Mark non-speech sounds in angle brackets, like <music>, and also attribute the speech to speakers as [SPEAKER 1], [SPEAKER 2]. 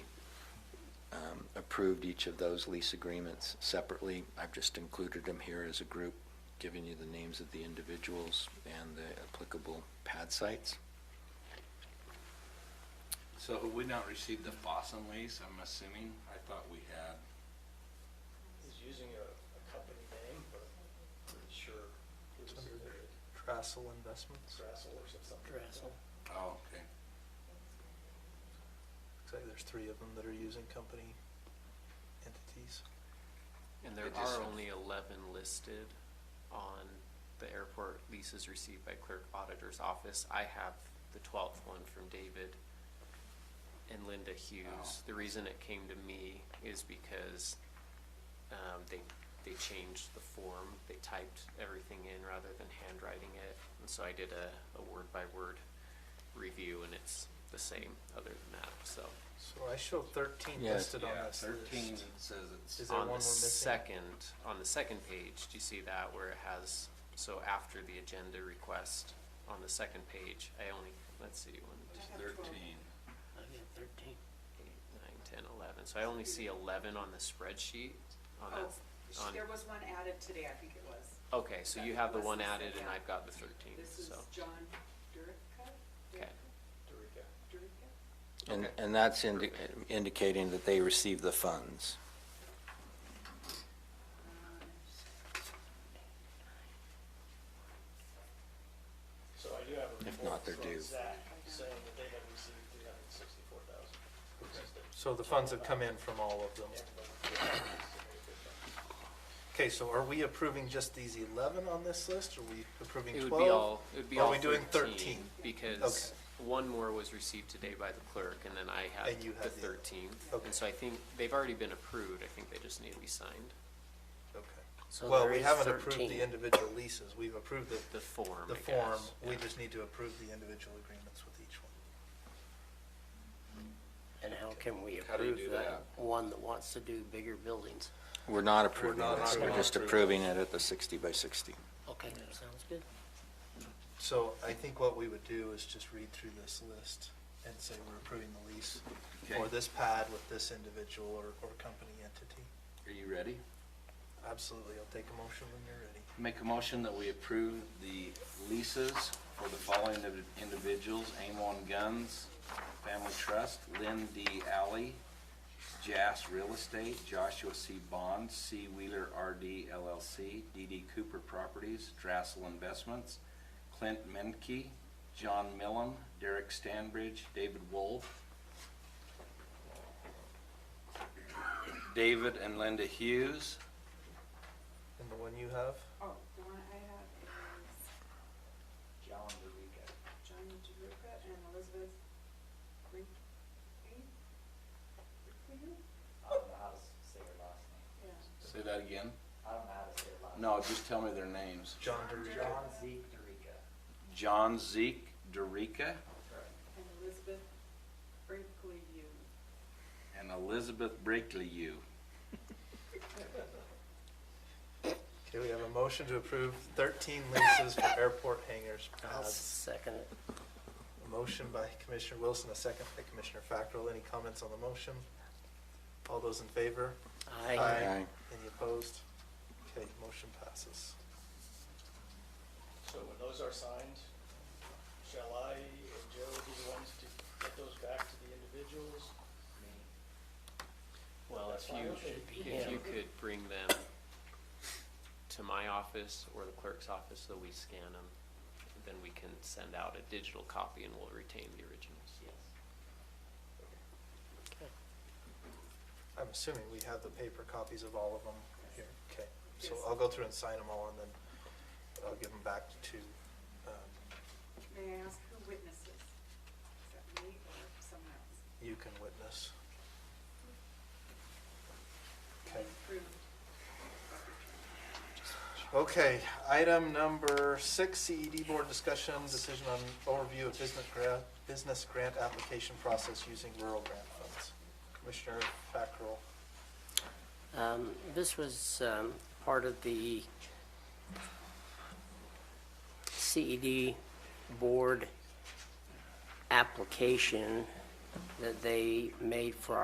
[SPEAKER 1] um, approved each of those lease agreements separately. I've just included them here as a group, giving you the names of the individuals and the applicable pad sites.
[SPEAKER 2] So have we not received the Fossum lease, I'm assuming? I thought we had.
[SPEAKER 3] He's using a, a company name, but I'm pretty sure it was
[SPEAKER 4] Under the-
[SPEAKER 3] uh,
[SPEAKER 4] Trassel Investments.
[SPEAKER 3] Drassel or some- something. like that.
[SPEAKER 4] Drassel.
[SPEAKER 2] Oh, okay.
[SPEAKER 4] Looks like there's three of them that are using company entities.
[SPEAKER 5] And there
[SPEAKER 2] It just-
[SPEAKER 5] are only eleven listed on the airport leases received by clerk auditor's office. I have the twelfth one from David and Linda Hughes.
[SPEAKER 2] Oh.
[SPEAKER 5] The reason it came to me is because, um, they, they changed the form. They typed everything in rather than handwriting it. And so I did a, a word by word review and it's the same other than that, so.
[SPEAKER 4] So I show thirteen
[SPEAKER 1] Yes.
[SPEAKER 4] listed on
[SPEAKER 2] Yeah,
[SPEAKER 4] this
[SPEAKER 2] thirteen
[SPEAKER 4] list.
[SPEAKER 2] says it's,
[SPEAKER 4] Is there
[SPEAKER 5] on
[SPEAKER 4] one we're
[SPEAKER 5] the
[SPEAKER 4] missing?
[SPEAKER 5] second, on the second page, do you see that where it has, so after the agenda request, on the second page, I only, let's see, one, two,
[SPEAKER 2] it's thirteen.
[SPEAKER 5] eight, nine, ten, eleven, so I only see eleven on the spreadsheet, on
[SPEAKER 6] Oh,
[SPEAKER 5] that,
[SPEAKER 6] sh-
[SPEAKER 5] on,
[SPEAKER 6] there was one added today, I think it was.
[SPEAKER 5] okay, so you have the one added and
[SPEAKER 6] Yeah.
[SPEAKER 5] I've got the thirteen,
[SPEAKER 6] This is
[SPEAKER 5] so,
[SPEAKER 6] John Durica?
[SPEAKER 5] okay.
[SPEAKER 3] Dorica.
[SPEAKER 6] Durica?
[SPEAKER 1] And,
[SPEAKER 5] Okay.
[SPEAKER 1] and that's indi- indicating that they received the funds.
[SPEAKER 6] Uh,
[SPEAKER 3] So I do have a
[SPEAKER 1] If
[SPEAKER 3] report
[SPEAKER 1] not, they're
[SPEAKER 3] from
[SPEAKER 1] due.
[SPEAKER 3] Zach saying that they have received three hundred and sixty-four thousand.
[SPEAKER 4] So the funds have come in from all of them. Okay, so are we approving just these eleven on this list? Are we approving
[SPEAKER 5] It
[SPEAKER 4] twelve?
[SPEAKER 5] would be all, it would be
[SPEAKER 4] Or
[SPEAKER 5] all
[SPEAKER 4] Are
[SPEAKER 5] thirteen.
[SPEAKER 4] we doing thirteen?
[SPEAKER 5] Because one more was received today by the clerk, and then I had
[SPEAKER 4] And you
[SPEAKER 5] the
[SPEAKER 4] had the-
[SPEAKER 5] thirteen.
[SPEAKER 4] Okay.
[SPEAKER 5] And so I think they've already been approved, I think they just need to be signed,
[SPEAKER 4] Okay.
[SPEAKER 7] So
[SPEAKER 4] Well,
[SPEAKER 7] there
[SPEAKER 4] we
[SPEAKER 7] is
[SPEAKER 4] haven't approved
[SPEAKER 7] 13.
[SPEAKER 4] the individual leases. We've approved the,
[SPEAKER 5] the form,
[SPEAKER 4] the
[SPEAKER 5] I
[SPEAKER 4] form.
[SPEAKER 5] guess.
[SPEAKER 4] We
[SPEAKER 5] Yeah.
[SPEAKER 4] just need to approve the individual agreements with each one.
[SPEAKER 7] And how can we
[SPEAKER 2] How do you
[SPEAKER 7] approve
[SPEAKER 2] do
[SPEAKER 7] that one that wants to do bigger buildings?
[SPEAKER 1] We're not approving
[SPEAKER 4] not
[SPEAKER 1] this, we're
[SPEAKER 4] approving.
[SPEAKER 1] just approving it at the 60 by 60.
[SPEAKER 7] Okay, that sounds good.
[SPEAKER 4] So I think what we would do is just read through this list and say we're approving the lease for
[SPEAKER 2] Okay.
[SPEAKER 4] this pad with this individual or, or company entity.
[SPEAKER 2] Are you ready?
[SPEAKER 4] Absolutely, I'll take a motion when you're ready.
[SPEAKER 2] Make a motion that we approve the leases for the following indiv- individuals, Amon Guns, Family Trust, Lynn D. Alley, Jas Real Estate, Joshua C. Bond, C. Wheeler RD LLC, DD Cooper Properties, Drassel Investments, Clint Menke, John Millam, Derek Stanbridge, David Wolf, David and Linda Hughes,
[SPEAKER 4] And the one you have?
[SPEAKER 6] Oh, the one I have is John Durica and Elizabeth Rink.
[SPEAKER 8] I don't know how to s- say her last name.
[SPEAKER 6] Yeah.
[SPEAKER 2] Say that again.
[SPEAKER 8] I don't know how to say her last name.
[SPEAKER 2] No, just tell me their names.
[SPEAKER 4] John
[SPEAKER 8] John Zeke Dorica.
[SPEAKER 2] John Zeke Dorica
[SPEAKER 6] And Elizabeth Brinkley Yu.
[SPEAKER 2] and Elizabeth Breakleyou.
[SPEAKER 4] Okay, we have a motion to approve thirteen leases <laughs> for airport hangars
[SPEAKER 7] I'll
[SPEAKER 4] pads.
[SPEAKER 7] second it.
[SPEAKER 4] A motion by Commissioner Wilson, a second by Commissioner Fackrell. Any comments on the motion? All those in favor?
[SPEAKER 7] Aye.
[SPEAKER 1] Aye.
[SPEAKER 4] Any opposed? Okay, motion passes.
[SPEAKER 3] So when those are signed, shall I and Joe be the ones to get those back to the individuals?
[SPEAKER 5] Well,
[SPEAKER 3] That's
[SPEAKER 5] if
[SPEAKER 3] fine,
[SPEAKER 5] you,
[SPEAKER 3] okay.
[SPEAKER 5] if you
[SPEAKER 7] Yeah.
[SPEAKER 5] could bring them to my office or the clerk's office, so we scan them, then we can send out a digital copy and we'll retain the originals.
[SPEAKER 4] I'm assuming we have the paper copies of all of them here. Okay, so I'll go through and sign them all and then I'll give them back to, um,
[SPEAKER 6] May I ask who witnesses? Is that me or someone else?
[SPEAKER 4] you can witness. Okay.
[SPEAKER 6] Approved.
[SPEAKER 4] Okay, item number six, CED board discussion, decision on overview of business grant, business grant application process using rural grant funds. Commissioner Fackrell,
[SPEAKER 7] Um, This was um, part of the CED board application that they made for